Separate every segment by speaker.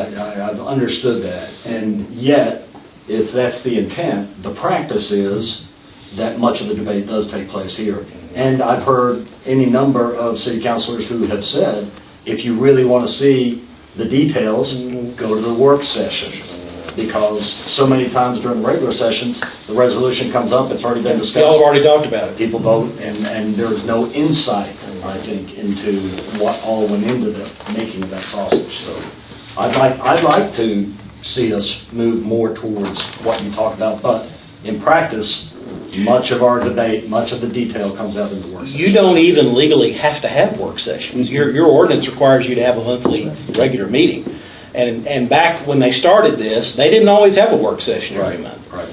Speaker 1: I, I've understood that. And yet, if that's the intent, the practice is that much of the debate does take place here. And I've heard any number of city councilors who have said, if you really want to see the details, go to the work sessions. Because so many times during the regular sessions, the resolution comes up, it's already been discussed
Speaker 2: Y'all have already talked about it.
Speaker 1: people vote, and, and there's no insight, I think, into what all went into the making of that sausage, so. I'd like, I'd like to see us move more towards what you talked about, but in practice, much of our debate, much of the detail comes out in the work
Speaker 2: You
Speaker 1: session.
Speaker 2: don't even legally have to have work sessions. Your, your ordinance requires you to have a monthly, regular meeting. And, and back when they started this, they didn't always have a work session every month.
Speaker 1: Right.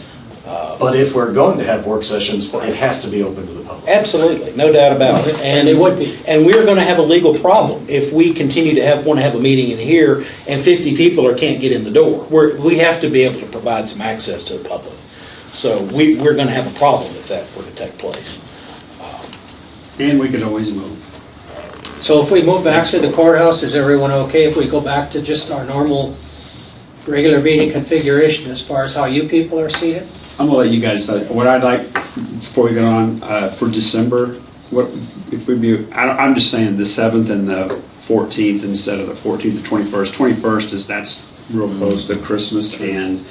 Speaker 1: But if we're going to have work sessions, it has to be open to the public.
Speaker 2: Absolutely, no doubt about it.
Speaker 3: And it would be.
Speaker 2: And we're gonna have a legal problem if we continue to have, wanna have a meeting in here and fifty people or can't get in the door. We're, we have to be able to provide some access to the public. So we, we're gonna have a problem if that were to take place.
Speaker 4: And we could always move.
Speaker 3: So if we move back to the courthouse, is everyone okay if we go back to just our normal, regular meeting configuration as far as how you people are seated?
Speaker 4: I'm gonna let you guys, know. what I'd like, before we get on, uh, for December, what, if we be, I, don't- I'm just saying the seventh and the fourteenth instead of the fourteenth to twenty-first. Twenty-first is, that's real
Speaker 3: Mm-hmm.
Speaker 4: close to Christmas and,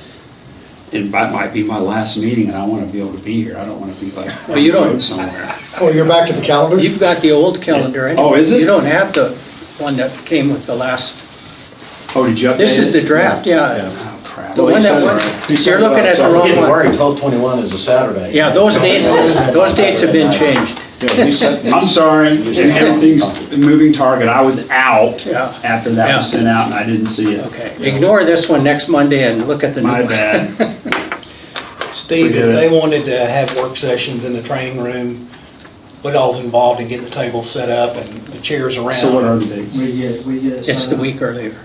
Speaker 4: and that might be my last meeting and I wanna be able to be here. I don't wanna be like,
Speaker 3: Well, you don't-
Speaker 4: going somewhere.
Speaker 5: Oh, you're back to the calendar?
Speaker 3: You've got the old calendar anyway.
Speaker 4: Oh, is it?
Speaker 3: You don't have the one that came with the last,
Speaker 4: Oh, did you update
Speaker 3: this is
Speaker 4: it?
Speaker 3: the draft, yeah.
Speaker 4: Oh, crap.
Speaker 3: The one that went- you're looking at
Speaker 1: So I
Speaker 3: the
Speaker 1: was
Speaker 3: wrong
Speaker 1: getting
Speaker 3: one.
Speaker 1: worried, twelve twenty-one is a Saturday.
Speaker 3: Yeah, those dates, those dates have been changed.
Speaker 4: I'm sorry, and everything's a moving target. I was out
Speaker 3: Yeah.
Speaker 4: after that was
Speaker 3: Yeah.
Speaker 4: sent out and I didn't see it.
Speaker 3: Okay, ignore this one next Monday and look at the new
Speaker 4: My
Speaker 3: one.
Speaker 4: bad. We
Speaker 6: Steve,
Speaker 4: did
Speaker 6: if they
Speaker 4: it.
Speaker 6: wanted to have work sessions in the training room, what all's involved in getting the tables set up and the chairs around?
Speaker 4: So what are the dates?
Speaker 7: We get, we get it
Speaker 3: It's the
Speaker 7: signed.
Speaker 3: week earlier.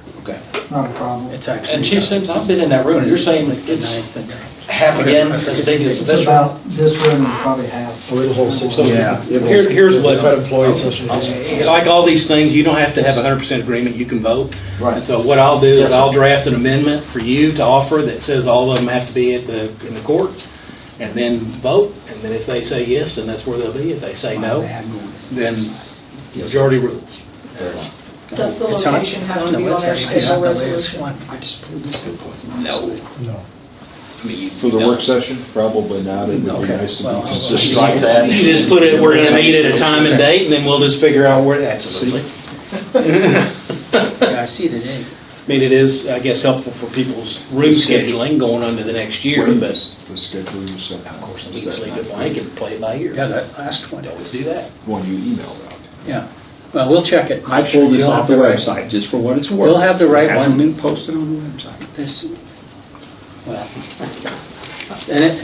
Speaker 7: Not a problem.
Speaker 3: It's actually.
Speaker 8: And Chief Sims, I've been in that room, you're saying that
Speaker 3: the
Speaker 8: it's
Speaker 3: ninth and-
Speaker 8: half again as big as
Speaker 7: It's
Speaker 8: this room?
Speaker 7: about this room and probably half.
Speaker 5: Oh, it'll hold six.
Speaker 4: Yeah. it will-
Speaker 2: Here, here's what.
Speaker 5: Fed employee association.
Speaker 2: Like all these things, you don't have to have hundred percent agreement, you can vote.
Speaker 1: Right.
Speaker 2: And so what I'll do
Speaker 1: Yes,
Speaker 2: is
Speaker 1: sir.
Speaker 2: I'll draft an amendment for you to offer that says all of them have to be at the, in the court, and then vote, and then if they say yes, then that's where they'll be, if they say no, then majority rules.
Speaker 9: Does the
Speaker 3: It's on-
Speaker 9: location
Speaker 3: it's
Speaker 9: have
Speaker 3: on the
Speaker 9: to be on our
Speaker 3: website. It's
Speaker 9: official
Speaker 3: not the latest
Speaker 9: resolution?
Speaker 3: one.
Speaker 2: No.
Speaker 5: No.
Speaker 10: For the work session? Probably not. It would be
Speaker 3: Okay,
Speaker 10: nice
Speaker 3: well,
Speaker 10: to
Speaker 3: I'll-
Speaker 10: be.
Speaker 1: Just strike that.
Speaker 2: You just put it, we're gonna meet at a time and date, and then we'll just figure out where, absolutely.
Speaker 3: Yeah, I see the date.
Speaker 2: I mean, it is, I guess, helpful for people's room scheduling going on to the next year, but
Speaker 10: The schedule you sent.
Speaker 2: of course, we can sleep it blank and play it by ear.
Speaker 3: Yeah, that last one.
Speaker 2: I'd always do that.
Speaker 10: One you emailed out.
Speaker 3: Yeah, well, we'll check it.
Speaker 4: I pulled this
Speaker 3: You'll have
Speaker 4: off the
Speaker 3: right-
Speaker 4: website, just for what it's worth.
Speaker 3: You'll have the right
Speaker 4: It hasn't
Speaker 3: one.
Speaker 4: been posted on the website.
Speaker 3: This, well, and it,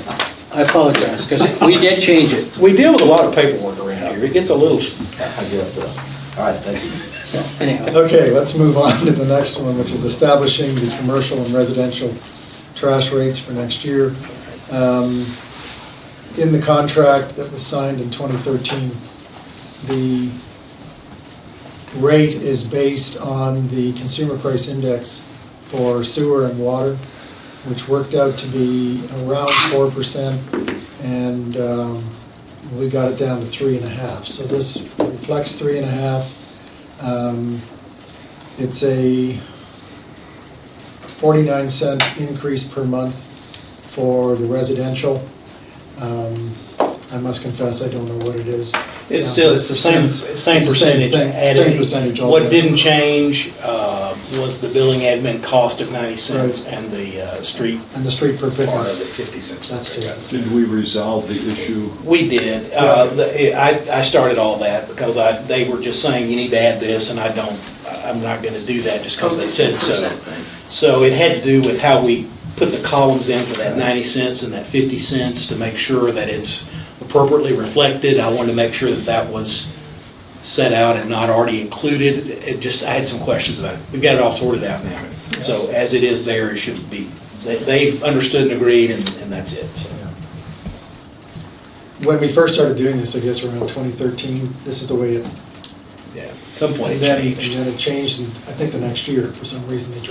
Speaker 3: I apologize, because we did change it.
Speaker 2: We deal with a lot of paperwork around here. It gets a little,
Speaker 1: I guess so. All right, thank you.
Speaker 3: Anyhow,
Speaker 5: Okay, let's move on to the next one, which is establishing the commercial and residential trash rates for next year. Um, In the contract that was signed in 2013, the rate is based on the consumer price index for sewer and water, which worked out to be around 4%, and um, we got it down to 3.5. So this reflects 3.5. Um, It's a 49 cent increase per month for the residential. Um, I must confess, I don't know what it is.
Speaker 2: it's still, it's the same, same
Speaker 5: It's the
Speaker 2: percentage
Speaker 5: thing,
Speaker 2: added.
Speaker 5: Same percentage.
Speaker 2: What
Speaker 5: altogether.
Speaker 2: didn't change uh, was the billing admin cost of 90 cents
Speaker 5: Right.
Speaker 2: and the uh, street
Speaker 5: And the street per
Speaker 2: part
Speaker 5: pickup,
Speaker 2: of it, 50 cents. per
Speaker 5: that stays the
Speaker 2: pickup.
Speaker 5: same.
Speaker 10: Did we resolve the issue?
Speaker 2: We did. Uh, the- I I started all that because I, they were just saying, you need to add this, and I don't, I'm not going to do that just because they said so. So it had to do with how we put the columns in for that 90 cents and that 50 cents to make sure that it's appropriately reflected. I wanted to make sure that that was set out and not already included. It just, I had some questions about it. We've got it all sorted out now. So as it is there, it should be, they- they've understood and agreed, and and that's it. so.
Speaker 5: When we first started doing this, I guess around 2013, this is the way it,
Speaker 2: Yeah, some
Speaker 5: and
Speaker 2: point.
Speaker 5: then and then it changed, and I think the next year, for some reason, they